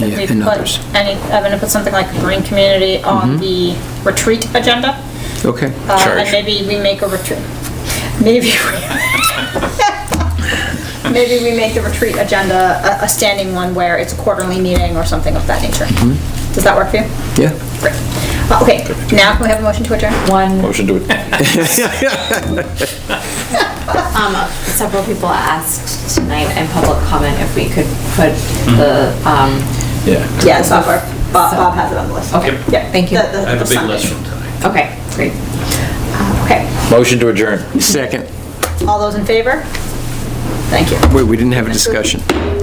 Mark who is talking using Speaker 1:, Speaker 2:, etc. Speaker 1: Yeah,
Speaker 2: we
Speaker 1: and
Speaker 2: put
Speaker 1: others.
Speaker 2: Any, I'm gonna put something like green community on the retreat agenda.
Speaker 1: Okay.
Speaker 2: Uh,
Speaker 3: Charge.
Speaker 2: And maybe we make a retreat, maybe, we- maybe we make the retreat agenda a, a standing one where it's a quarterly meeting or something of that nature. Does that work for you?
Speaker 1: Yeah.
Speaker 2: Great. Uh, Okay, now can we have a motion to adjourn?
Speaker 4: One,
Speaker 3: Motion to it.
Speaker 4: um, several people asked tonight in public comment if we could put the, um,
Speaker 3: Yeah.
Speaker 2: Yeah, it's Bob, Bob Bob has it on the list.
Speaker 4: okay,
Speaker 2: Yeah.
Speaker 4: thank you.
Speaker 2: The- the-
Speaker 5: I have
Speaker 2: the
Speaker 5: a big
Speaker 2: Sunday.
Speaker 5: list from tonight.
Speaker 4: Okay, great. Uh,
Speaker 2: Okay,
Speaker 3: Motion to adjourn.
Speaker 1: Second.
Speaker 2: all those in favor? Thank you.
Speaker 1: Wait, we didn't have a discussion.